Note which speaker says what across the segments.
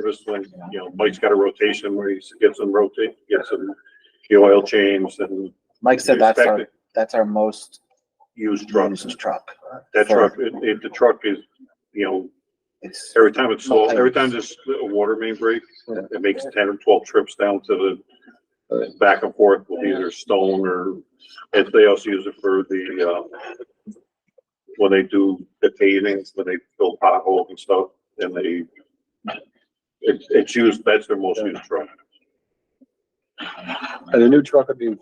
Speaker 1: service when, you know, Mike's got a rotation where he gets them rotate, gets them the oil changed and
Speaker 2: Mike said that's
Speaker 1: expect
Speaker 2: our,
Speaker 1: to
Speaker 2: that's our most
Speaker 1: used trucks.
Speaker 2: used truck.
Speaker 1: That truck, it, it, the truck is, you know,
Speaker 2: It's,
Speaker 1: every time it's slow, every time there's a water main break, it makes ten or twelve trips down to the back and forth with either stone or, and they also use it for the, uh, when they do the pavings, when they fill potholes and stuff, and they, it's, it's used, that's their most used truck.
Speaker 3: And the new truck would be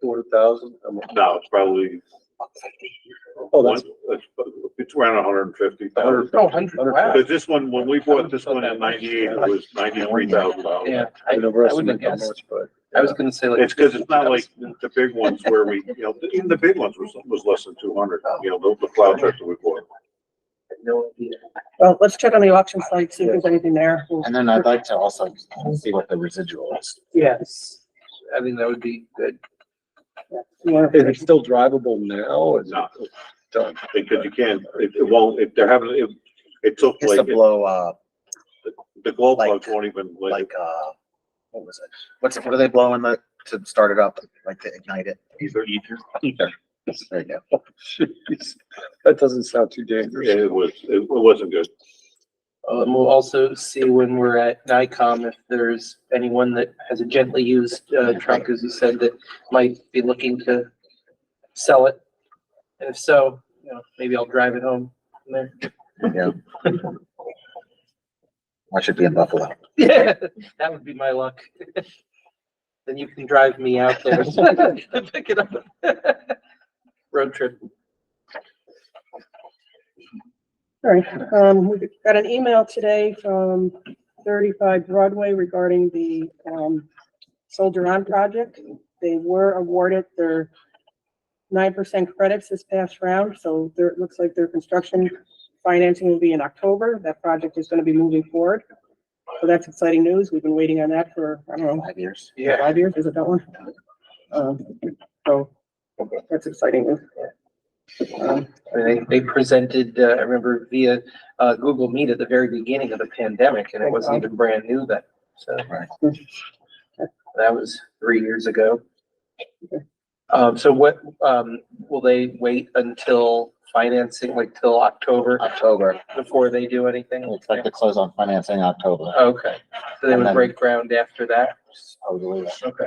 Speaker 3: four thousand?
Speaker 1: Now, it's probably
Speaker 3: Oh,
Speaker 1: one,
Speaker 3: that's
Speaker 1: it's it's around hundred and fifty thousand.
Speaker 3: hundred.
Speaker 4: Oh, hundred, wow.
Speaker 1: But this one, when we bought this one in ninety-eight, it was ninety-three thousand dollars.
Speaker 4: Yeah,
Speaker 3: I
Speaker 4: I, I wouldn't have
Speaker 3: overestimated how
Speaker 4: guessed.
Speaker 3: much, but.
Speaker 4: I was gonna say like.
Speaker 1: It's because it's not like the big ones where we, you know, even the big ones was, was less than two hundred, you know, the- the plow truck that we bought.
Speaker 5: Well, let's check on the auction site, see if there's anything there. We'll-
Speaker 2: and then I'd like to also see what the residual is.
Speaker 5: Yes.
Speaker 4: I think that would be good.
Speaker 5: More
Speaker 3: Is it
Speaker 5: information.
Speaker 3: still drivable now? Is it
Speaker 1: No,
Speaker 3: done?
Speaker 1: because you can't, it, it won't, if they're having, it, it took
Speaker 2: Just to
Speaker 1: like,
Speaker 2: blow, uh,
Speaker 1: the glow
Speaker 2: like-
Speaker 1: plugs won't even, like,
Speaker 2: like, uh, what was it? What's, what are they blowing the, to start it up, like to ignite it?
Speaker 1: Ether.
Speaker 2: Ether. There you go.
Speaker 3: Jeez, That doesn't sound too dangerous.
Speaker 1: it was, it wasn't good.
Speaker 4: Uh, and we'll also see when we're at NICOM if there's anyone that has a gently used, uh, truck, as you said, that might be looking to sell it. And if so, you know, maybe I'll drive it home from there.
Speaker 2: I should be in Buffalo.
Speaker 4: Yeah, that would be my luck. Then you can drive me out there to pick it up. Road trip.
Speaker 5: All right, um, we got an email today from thirty-five Broadway regarding the, um, Soldier On project. They were awarded their nine percent credits this past round, so there, it looks like their construction financing will be in October. That project is gonna be moving forward. So that's exciting news. We've been waiting on that for, I don't know,
Speaker 2: Five years.
Speaker 5: Five years, is it that one? Um, So, that's exciting. Um,
Speaker 4: I mean, They, they presented, uh, I remember via, uh, Google Meet at the very beginning of the pandemic and it wasn't even brand new then, so.
Speaker 2: Right.
Speaker 4: That was three years ago. Um, so what, um, will they wait until financing, like till October
Speaker 2: October.
Speaker 4: before they do anything?
Speaker 2: We expect to close on financing October.
Speaker 4: Okay, so they
Speaker 2: And
Speaker 4: would
Speaker 2: then-
Speaker 4: break ground after that?
Speaker 2: Totally.
Speaker 4: Okay.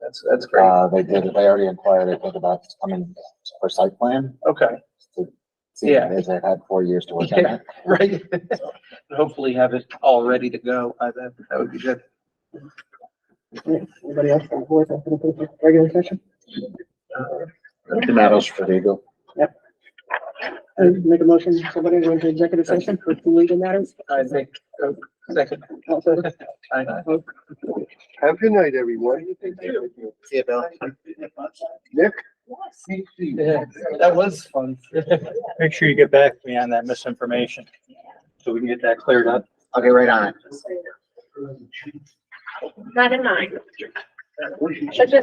Speaker 4: That's, that's great,
Speaker 2: Uh, they did, they already inquired, I think about coming for site plan.
Speaker 4: okay,
Speaker 2: See,
Speaker 4: Yeah.
Speaker 2: They've had four years to work on
Speaker 4: Yeah.
Speaker 2: it.
Speaker 4: right. Hopefully have it all ready to go, I, that, that would be good.
Speaker 5: Anybody else on the board that's gonna put up a regular session?
Speaker 2: The medals for legal.
Speaker 5: Uh, Make a motion, somebody go into executive session for two legal matters.
Speaker 4: I think, oh, second,
Speaker 5: Also,
Speaker 4: I,
Speaker 3: Have a good night, everyone.
Speaker 2: See you, Bill.
Speaker 4: yeah, that was fun.
Speaker 6: Make sure you get back to me on that misinformation, so we can get that cleared up.
Speaker 2: I'll get right on it.
Speaker 7: Not in mine. But just